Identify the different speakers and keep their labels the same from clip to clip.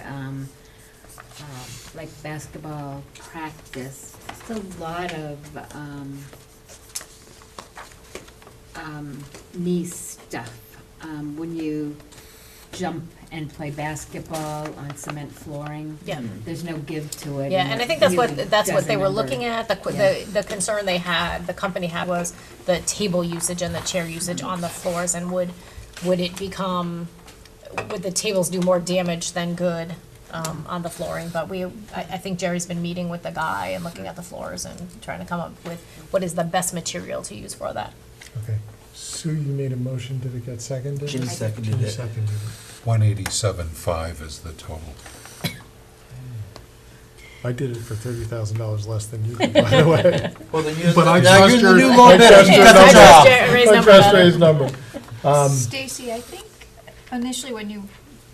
Speaker 1: um, um, like basketball practice, just a lot of, um, um, knee stuff. Um, when you jump and play basketball on cement flooring.
Speaker 2: Yeah.
Speaker 3: Mm-hmm.
Speaker 1: There's no give to it.
Speaker 2: Yeah, and I think that's what, that's what they were looking at, the, qu-
Speaker 1: Yeah.
Speaker 2: the, the concern they had, the company had was the table usage and the chair usage on the floors, and would, would it become, would the tables do more damage than good, um, on the flooring, but we, I, I think Jerry's been meeting with the guy and looking at the floors and trying to come up with what is the best material to use for that.
Speaker 3: Okay, Sue, you made a motion, did it get seconded?
Speaker 4: Jim seconded
Speaker 3: Jim
Speaker 4: it.
Speaker 3: seconded it.
Speaker 5: One eighty-seven five is the total.
Speaker 3: I did it for thirty thousand dollars less than you did, by the way.
Speaker 4: Well, then you're,
Speaker 3: But I
Speaker 4: now you're
Speaker 3: trust
Speaker 4: the
Speaker 3: your-
Speaker 4: new
Speaker 3: I
Speaker 4: low bidder.
Speaker 3: trust
Speaker 4: You
Speaker 3: your
Speaker 4: got
Speaker 3: number.
Speaker 4: the
Speaker 2: I
Speaker 4: job.
Speaker 2: trust Jerry's
Speaker 3: I
Speaker 2: number
Speaker 3: trust
Speaker 2: better.
Speaker 3: Ray's number. Um,
Speaker 6: Stacy, I think initially when you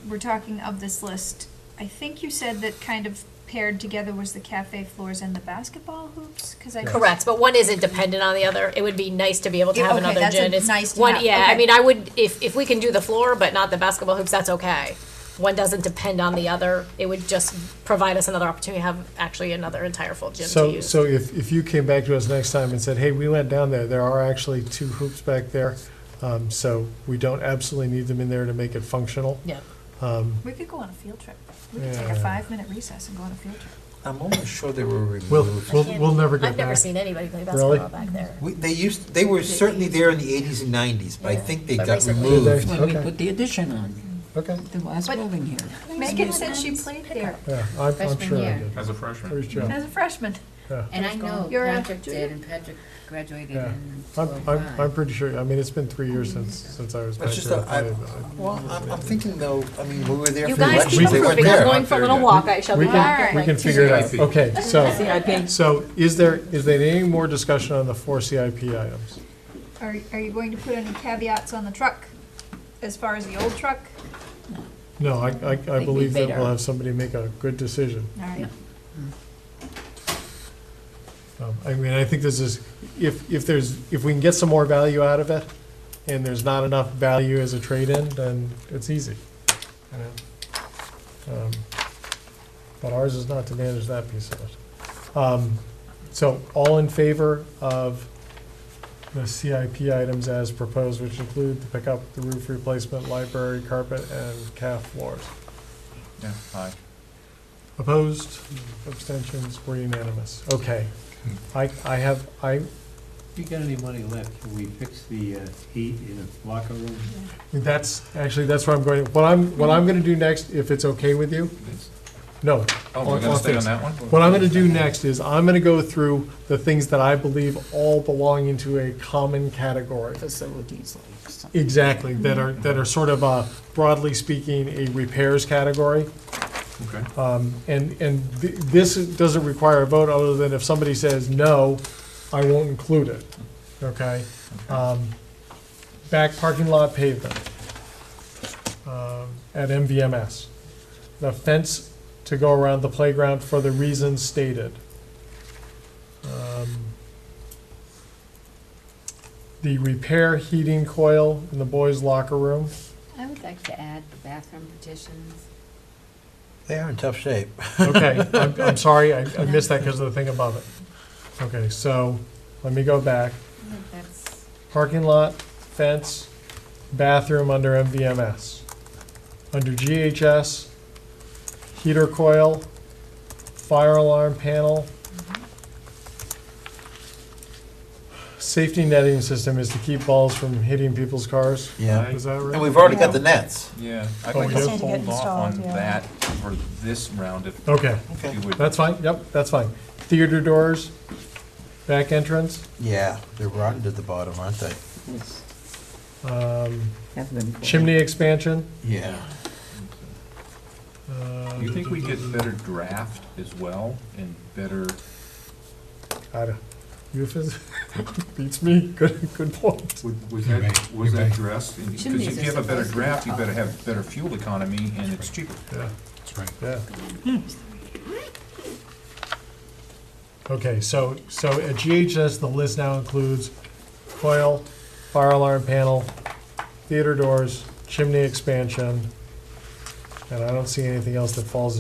Speaker 6: were talking of this list, I think you said that kind of paired together was the cafe floors and the basketball hoops, because I.
Speaker 2: Correct, but one isn't dependent on the other. It would be nice to be able to
Speaker 6: Yeah,
Speaker 2: have
Speaker 6: okay,
Speaker 2: another
Speaker 6: that's a
Speaker 2: gym. It's
Speaker 6: nice to
Speaker 2: one,
Speaker 6: have,
Speaker 2: yeah. I
Speaker 6: okay.
Speaker 2: mean, I would if if we can do the floor, but not the basketball hoops. That's okay. One doesn't depend on the other. It would just provide us another opportunity to have actually another entire full gym to
Speaker 3: So,
Speaker 2: use.
Speaker 3: so if, if you came back to us next time and said, hey, we went down there, there are actually two hoops back there, um, so we don't absolutely need them in there to make it functional.
Speaker 2: yeah.
Speaker 3: Um,
Speaker 6: We could go on a field trip. We could take a
Speaker 3: Yeah.
Speaker 6: five-minute recess and go on a field trip.
Speaker 4: I'm almost sure they were
Speaker 3: We'll,
Speaker 4: removed.
Speaker 3: we'll, we'll never get
Speaker 2: I've never
Speaker 3: back.
Speaker 2: seen anybody play basketball
Speaker 3: Really?
Speaker 2: back there.
Speaker 4: We, they used, they were certainly there in the eighties and nineties, but I
Speaker 2: Yeah.
Speaker 4: think they
Speaker 2: But
Speaker 4: got
Speaker 2: recently-
Speaker 4: removed.
Speaker 7: when we
Speaker 3: Okay.
Speaker 7: put the addition on,
Speaker 3: Okay,
Speaker 7: the last
Speaker 6: But-
Speaker 7: building here.
Speaker 6: Megan said she played there
Speaker 3: yeah, I'm, I'm
Speaker 1: Freshman
Speaker 3: sure I
Speaker 1: year.
Speaker 3: did.
Speaker 8: As a freshman.
Speaker 3: There's Joe.
Speaker 6: as a freshman.
Speaker 3: Yeah.
Speaker 1: And I know
Speaker 6: You're a
Speaker 1: Patrick did,
Speaker 6: junior?
Speaker 1: and Patrick graduated
Speaker 3: Yeah.
Speaker 1: in
Speaker 3: I'm, I'm, I'm
Speaker 1: 2005.
Speaker 3: pretty sure, I mean, it's been three years since, since I was back
Speaker 4: It's just,
Speaker 3: there.
Speaker 4: that
Speaker 3: to
Speaker 4: I,
Speaker 3: play, but-
Speaker 4: well, I'm, I'm thinking though, I mean, we were there
Speaker 2: You
Speaker 4: for the
Speaker 2: guys keep
Speaker 4: elections, they weren't
Speaker 2: improving. I'm
Speaker 4: there.
Speaker 2: going for a little walk. I shall
Speaker 3: We
Speaker 2: be back.
Speaker 3: can,
Speaker 2: in
Speaker 3: we
Speaker 2: like
Speaker 3: can
Speaker 2: two
Speaker 3: figure it out.
Speaker 8: CIP.
Speaker 3: Okay, so,
Speaker 7: CIP,
Speaker 3: so is there, is there any more discussion on the four CIP items?
Speaker 6: Are, are you going to put any caveats on the truck as far as the old truck?
Speaker 3: No, I, I, I
Speaker 7: we
Speaker 3: believe that
Speaker 7: made
Speaker 3: we'll
Speaker 7: our-
Speaker 3: have somebody make a good decision.
Speaker 6: All right.
Speaker 3: Um, I mean, I think this is, if, if there's, if we can get some more value out of it, and there's not enough value as a trade-in, then it's easy. you know? Um, But ours is not to manage that piece of it. Um, So all in favor of the CIP items as proposed, which include the pickup, the roof replacement, library carpet, and calf floors?
Speaker 8: Yeah, aye.
Speaker 3: Opposed, abstentions, we're unanimous. Okay. I, I have, I,
Speaker 9: If you got any money left, can we fix the uh, heat in the locker room?
Speaker 3: That's, actually, that's where I'm going, what I'm, what I'm gonna do next, if it's okay with you, no.
Speaker 8: Oh,
Speaker 3: I'll-
Speaker 8: we're
Speaker 3: I'll
Speaker 8: gonna stay
Speaker 3: fix-
Speaker 8: on that one?
Speaker 3: What I'm gonna do next is, I'm gonna go through the things that I believe all belong into a common category.
Speaker 7: facilities like some-
Speaker 3: Exactly, that are, that are sort of, uh, broadly speaking, a repairs category.
Speaker 8: Okay.
Speaker 3: Um, and, and th- this doesn't require a vote, other than if somebody says no, I won't include it, okay? Um, Back parking lot pavement um, at MVMS. The fence to go around the playground for the reasons stated. Um, The repair heating coil in the boys' locker room.
Speaker 1: I would like to add the bathroom petitions.
Speaker 4: They are in tough shape.
Speaker 3: Okay, I'm, I'm sorry, I, I missed that because of the thing above it. Okay, so, let me go back.
Speaker 1: I think that's,
Speaker 3: Parking lot, fence, bathroom under MVMS. Under GHS, heater coil, fire alarm panel. Safety netting system is to keep balls from hitting people's cars.
Speaker 4: Yeah.
Speaker 3: Is that right?
Speaker 4: And we've already got the nets.
Speaker 8: Yeah, I'd
Speaker 3: Oh,
Speaker 8: like
Speaker 3: we do?
Speaker 8: to hold off on that for this round if
Speaker 3: Okay,
Speaker 8: you would.
Speaker 3: that's fine, yep, that's fine. Theater doors, back entrance.
Speaker 4: Yeah, they're rotten to the bottom, aren't they?
Speaker 7: let's
Speaker 3: Um,
Speaker 7: have them for-
Speaker 3: Chimney expansion.
Speaker 4: Yeah.
Speaker 8: Do you think we get better draft as well and better,
Speaker 3: I don't, euphemism, beats me, good, good point.
Speaker 8: would- was
Speaker 5: You're
Speaker 8: that,
Speaker 5: right,
Speaker 8: was
Speaker 5: you're
Speaker 8: that
Speaker 5: right.
Speaker 8: dressed? Because
Speaker 1: Shouldn't
Speaker 8: if
Speaker 1: these
Speaker 8: you have a
Speaker 1: just
Speaker 8: better
Speaker 1: supposed to be
Speaker 8: draft, you better
Speaker 1: up?
Speaker 8: have better fuel economy and it's cheaper.
Speaker 3: Yeah,
Speaker 5: That's right.
Speaker 3: yeah. Okay, so, so at GHS, the list now includes coil, fire alarm panel, theater doors, chimney expansion, And I don't see anything else that falls